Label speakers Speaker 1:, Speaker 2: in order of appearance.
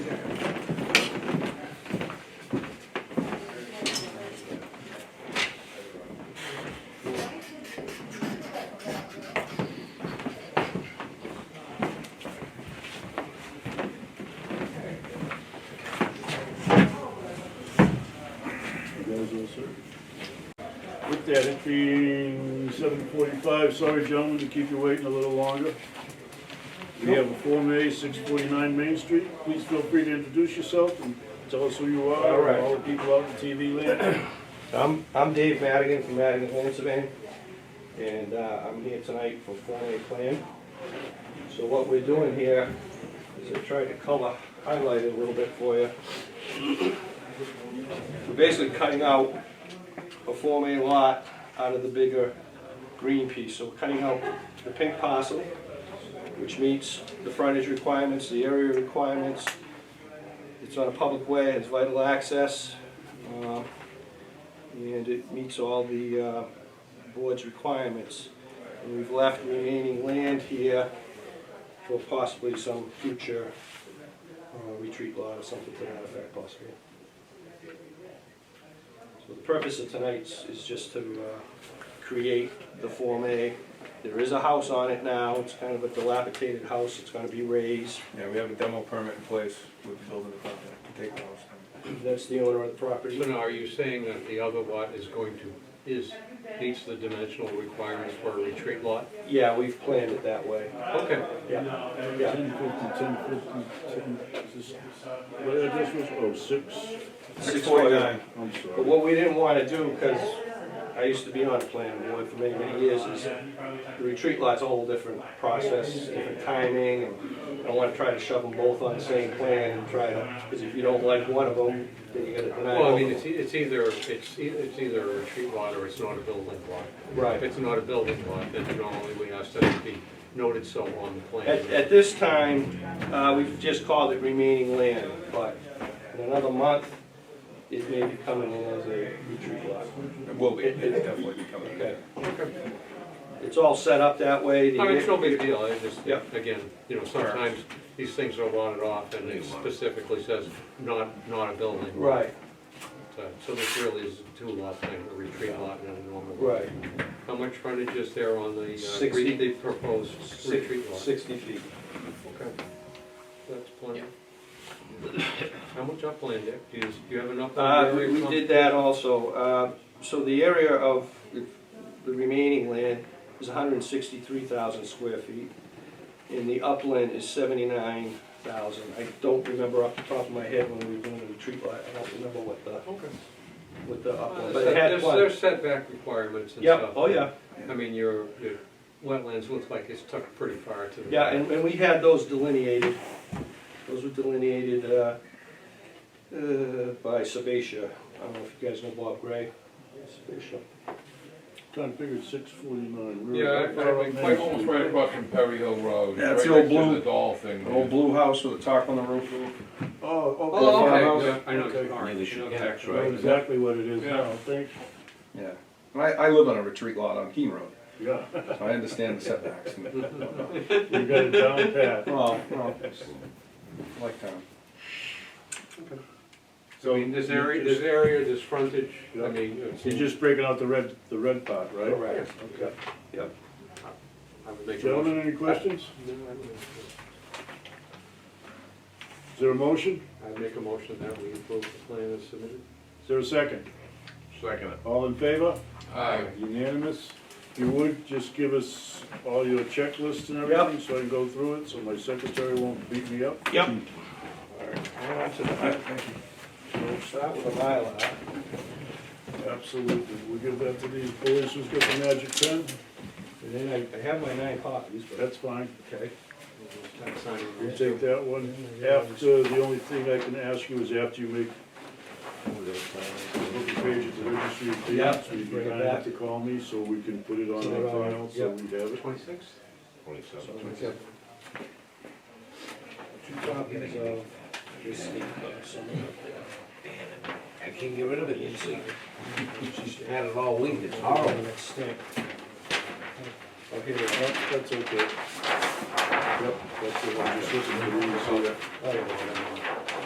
Speaker 1: sir. With that, it being seven forty-five, sorry gentlemen to keep you waiting a little longer. We have a Form A, six forty-nine Main Street. Please feel free to introduce yourself and tell us who you are.
Speaker 2: All right.
Speaker 1: All the people out in TV land.
Speaker 2: I'm, I'm Dave Madigan from Madigan Land Surveying, and uh, I'm here tonight for Form A Plan. So what we're doing here is I tried to color, highlight it a little bit for you. We're basically cutting out a Form A lot out of the bigger green piece. So we're cutting out the pink parcel, which meets the frontage requirements, the area requirements. It's on a public way, it's vital access. um, and it meets all the uh, board's requirements. And we've left remaining land here for possibly some future uh, retreat lot or something to that effect possibly. So the purpose of tonight's is just to uh, create the Form A. There is a house on it now, it's kind of a dilapidated house, it's gonna be raised.
Speaker 3: Yeah, we have a demo permit in place with the building department to take those.
Speaker 2: That's the owner of the property.
Speaker 4: So now, are you saying that the other lot is going to, is, meets the dimensional requirements for a retreat lot?
Speaker 2: Yeah, we've planned it that way.
Speaker 4: Okay,
Speaker 2: Yeah, yeah.
Speaker 1: Ten fifty, ten fifty, ten, is this, what address was, oh, six?
Speaker 2: Six forty-nine.
Speaker 1: I'm
Speaker 2: But
Speaker 1: sorry.
Speaker 2: what we didn't want to do, because I used to be on the planning board for many, many years, is the retreat lot's a whole different process, different timing, and I don't want to try to shove them both on the same plan and try to, because if you don't like one of them, then you gotta deny
Speaker 4: well, I mean,
Speaker 2: both
Speaker 4: it's,
Speaker 2: of
Speaker 4: e- it's either, it's, e- it's either a retreat lot or it's not a building
Speaker 2: them.
Speaker 4: lot. If
Speaker 2: Right.
Speaker 4: it's not a building lot, then normally we ask that it be noted so on the
Speaker 2: At,
Speaker 4: plan.
Speaker 2: at this time, uh, we've just called it remaining land, but in another month, it may be coming in as a retreat lot.
Speaker 3: Well, it it's definitely becoming.
Speaker 2: Okay.
Speaker 4: Okay.
Speaker 2: It's all set up that way.
Speaker 4: I mean, it's no big deal, I just,
Speaker 2: Yep.
Speaker 4: again, you know, sometimes these things are lotted off and it specifically says not, not a building.
Speaker 2: Right,
Speaker 4: So so this really is a two lot thing, a retreat lot and a normal lot.
Speaker 2: right.
Speaker 4: How much frontage is there on the, uh,
Speaker 2: Sixty.
Speaker 4: re- the proposed
Speaker 2: Six-
Speaker 4: retreat lot?
Speaker 2: Sixty feet.
Speaker 4: Okay. That's plenty. How much upland there? Do you, do you have enough?
Speaker 2: Uh,
Speaker 4: upland
Speaker 2: we,
Speaker 4: area
Speaker 2: we
Speaker 4: from-
Speaker 2: did that also, uh, so the area of the the remaining land is hundred and sixty-three thousand square feet, and the upland is seventy-nine thousand. I don't remember off the top of my head when we were doing the retreat lot, I don't remember what the,
Speaker 4: Okay.
Speaker 2: what the upland, but it had
Speaker 4: There's,
Speaker 2: one.
Speaker 4: there's setback requirements and stuff.
Speaker 2: Yep, oh yeah,
Speaker 4: I mean, your, your wetlands looks like it's tucked pretty far to the.
Speaker 2: yeah, and, and we had those delineated, those were delineated, uh, uh, by Sebatia, I don't know if you guys know Bob Gray, Sebatia.
Speaker 1: Kind of figured six forty-nine.
Speaker 3: Yeah,
Speaker 1: I'm
Speaker 3: quite almost right across from Perry Hill Road.
Speaker 5: Yeah, it's
Speaker 3: right
Speaker 5: the old
Speaker 3: next to
Speaker 5: blue-
Speaker 3: The doll thing.
Speaker 5: An old blue house with a tarp on the roof.
Speaker 1: Oh, okay.
Speaker 4: Oh,
Speaker 5: farmhouse.
Speaker 4: okay, yeah, I know, all right.
Speaker 1: I know Exactly what it is now, thanks,
Speaker 5: Yeah. And I, I live on a retreat lot on Keene Road,
Speaker 1: yeah,
Speaker 5: so I understand the setbacks. and-
Speaker 1: you got it down pat.
Speaker 5: Well, well, it's like town.
Speaker 4: So, I mean, this area, this area, this frontage, I
Speaker 1: Yeah.
Speaker 4: mean, it's.
Speaker 1: You're just breaking out the red, the red part, right?
Speaker 2: Correct.
Speaker 1: Okay.
Speaker 2: Yep.
Speaker 4: I would make a motion.
Speaker 1: Gentlemen, any questions? Is there a motion?
Speaker 4: I make a motion that we approve the plan as submitted.
Speaker 1: Is there a second?
Speaker 3: Second.
Speaker 1: All in favor?
Speaker 3: Aye.
Speaker 1: Unanimous? If you would, just give us all your checklists and
Speaker 2: Yep.
Speaker 1: everything, so I can go through it, so my secretary won't beat me up.
Speaker 2: Yep. So we'll start with the Mylar.
Speaker 1: Absolutely, we give that to these boys who's got the magic pen,
Speaker 2: And then I, I have my nine copies, but
Speaker 1: that's fine.
Speaker 2: okay.
Speaker 4: Time signing
Speaker 1: We'll
Speaker 4: this.
Speaker 1: take that one. After, the only thing I can ask you is after you make book a page at the registry of
Speaker 2: Yep,
Speaker 1: deeds, you
Speaker 2: bring it
Speaker 1: can have
Speaker 2: back.
Speaker 1: to call me, so we can put it on
Speaker 2: Put it
Speaker 1: our
Speaker 2: on,
Speaker 1: file, so
Speaker 2: yep.
Speaker 1: we have it.
Speaker 4: Twenty-six?
Speaker 2: So we have Two copies of this deed, somewhere up there. I can't get rid of it easily. She's had it all winged, it's horrible. It's stink. Okay,
Speaker 1: That- That's okay. Yep, that's the one, just listen to the rules, so that-
Speaker 2: Oh, I don't know.